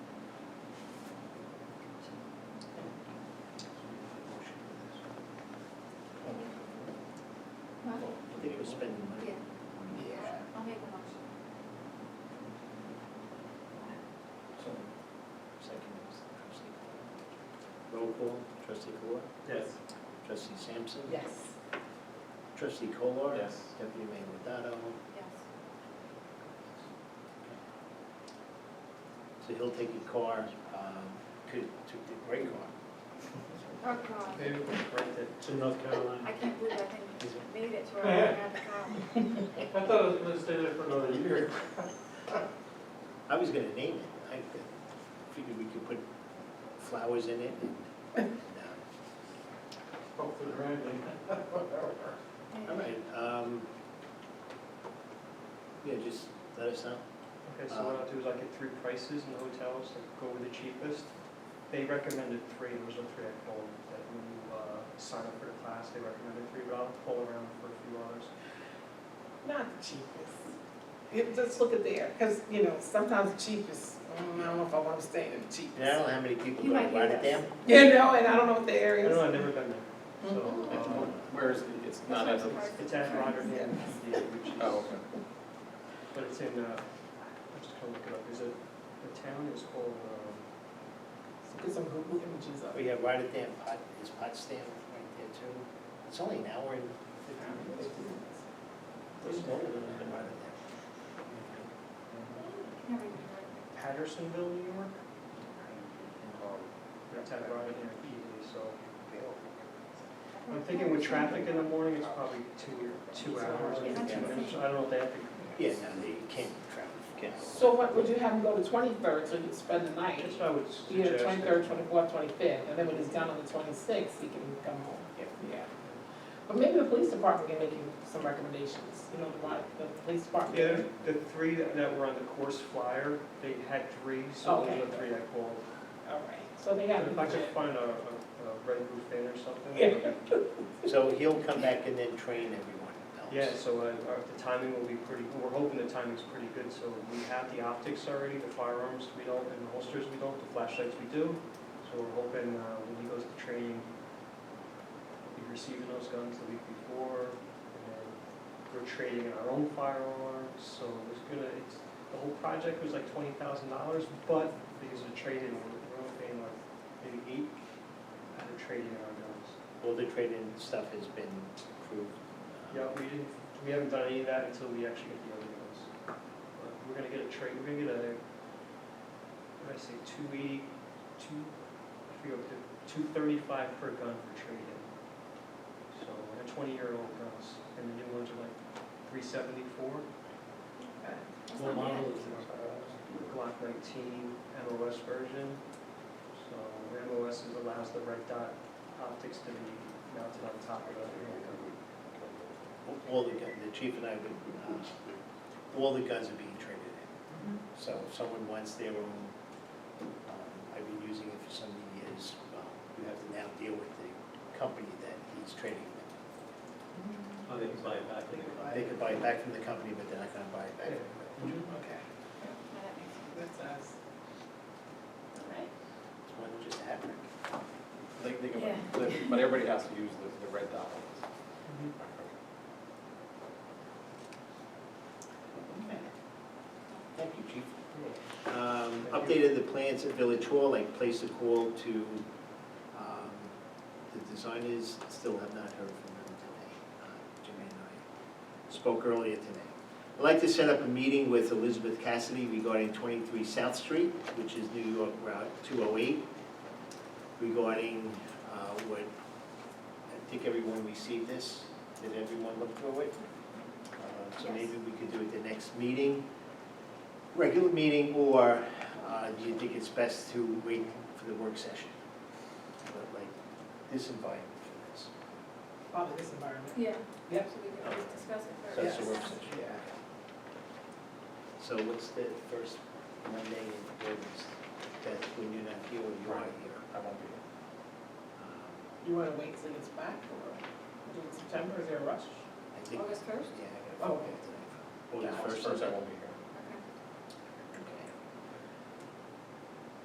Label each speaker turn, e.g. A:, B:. A: spending money.
B: Yeah,
C: Yeah.
B: I'll make a motion.
A: So, second is trustee Corr. Roll call, trustee Corr?
D: Yes.
A: Trustee Sampson?
C: Yes.
A: Trustee Kolar?
D: Yes.
A: Deputy Mayor Madado?
B: Yes.
A: So he'll take your car, um, could, took the gray car.
B: Oh, God.
D: Maybe we can correct it.
A: To North
B: I
A: Carolina.
B: can't believe I think we made it to our last round.
D: I thought I was gonna stay there for another year.
A: I was gonna name it, I figured we could put flowers in it and, and,
D: Hopefully, granted.
A: uh, all right, um, yeah, just let us know.
D: Okay, so what I'll do is I'll get three prices in the hotels, like go with the cheapest. They recommended three, there was no three I pulled, that when you uh, sign up for the class, they recommended three, but I'll pull around for a few others.
C: Not the cheapest. It- Just look at there, because, you know, sometimes the cheapest, mm, I don't know if I want to stay in the
A: And I
C: cheapest.
A: don't know how many people
B: You
A: go to
B: might hear
A: Rotterdam.
C: You know, and I don't know what the
D: I
C: area
D: don't know,
C: is.
D: I've never been there, so.
A: Mhm.
D: uh,
E: Where is, it? it's not at the,
D: It's it's at Rotterdam, yeah, which is.
E: oh, okay.
D: But it's in, uh, I'm just gonna look it up, is it, the town is called, um,
C: Get some Google images up.
A: We have Rotterdam, Pot, is Potsdam right there too? It's only an hour and fifteen minutes. It's longer than Rotterdam.
B: Never mind.
D: Pattersonville, New York? That's at Rotterdam easily, so. I'm thinking with traffic in the morning, it's probably two, two hours, maybe two minutes, I don't know if they have to.
A: Yeah, no, you can't travel. you can't.
C: So what, would you have them go to twenty-third, so you could spend the night?
D: That's what I would
C: Yeah,
D: suggest.
C: twenty-third, twenty-fourth, twenty-fifth, and then when he's done on the twenty-sixth, he can come home.
A: Yeah.
C: Yeah. But maybe the police department can make you some recommendations, you know, the, Ro- the police department.
D: Yeah, the three that that were on the course flyer, they had three, so those are the
C: Okay.
D: three I called.
C: All right, so they have.
D: If I could find a, a a red roof van or something.
C: Yeah.
A: So he'll come back and then train everyone else.
D: Yeah, so uh, our- the timing will be pretty, we're hoping the timing's pretty good, so we have the optics already, the firearms we don't, and the holsters we don't, the flashlights we do. So we're hoping uh, when he goes to training, he'll be receiving those guns the week before, and then we're trading in our own firearms, so it's gonna, it's, the whole project was like twenty thousand dollars, but because of the trade-in, we're we're only paying like maybe eight out of trading in our guns.
A: All the training stuff has been approved.
D: Yeah, we didn't, we haven't done any of that until we actually get the other ones. But We're gonna get a trade, we're gonna get a, what did I say, two eighty, two, I forget what, two thirty-five per gun for trade-in. So, and a twenty-year-old guns, and the new ones are like three seventy-four.
B: That's
A: What
B: not bad.
A: model is it?
D: Glock nineteen MOS version. So MOS is allows the red dot optics to be mounted on top of the
A: All the, gun- the chief and I would, uh, all the guns are being traded in. So if someone wants their own, um, I've been using it for so many years, well, you have to now deal with the company that he's trading with.
E: Oh, they can buy it back.
A: They could buy it back from the company, but they're not gonna buy it back.
D: gun.
E: Mm-hmm.
C: Okay,
B: No, that makes sense.
C: that's us.
B: All right.
A: It's one that just happened.
E: They, they can,
B: Yeah.
E: they- but everybody has to use the, the red dot ones.
A: Thank you, chief.
D: Yeah.
A: Um,
D: Thank you.
A: Updated the plans at Village Hall, I placed a call to um, the designers, still have not heard from them today. Uh, Jimmy and I spoke earlier today. I'd like to set up a meeting with Elizabeth Cassidy regarding 23 South Street, which is New York Route 208, regarding uh, what, I think everyone received this, did everyone look through it? Uh, So
B: Yes.
A: maybe we could do it the next meeting, regular meeting, or uh, do you think it's best to wait for the work session? But Like, this environment for this,
C: Probably this environment.
B: Yeah.
C: Yep.
B: So we can always discuss it first.
A: so it's a
C: Yes.
A: work session.
C: Yeah.
A: So what's the first Monday in August, that's when you're not here or you are here?
E: I won't be here.
A: Um,
C: You wanna wait till it's back or do it in September, is there a rush?
A: I think,
B: August first?
A: yeah, I gotta.
C: Oh.
A: August
E: First, I
A: first.
E: won't be here.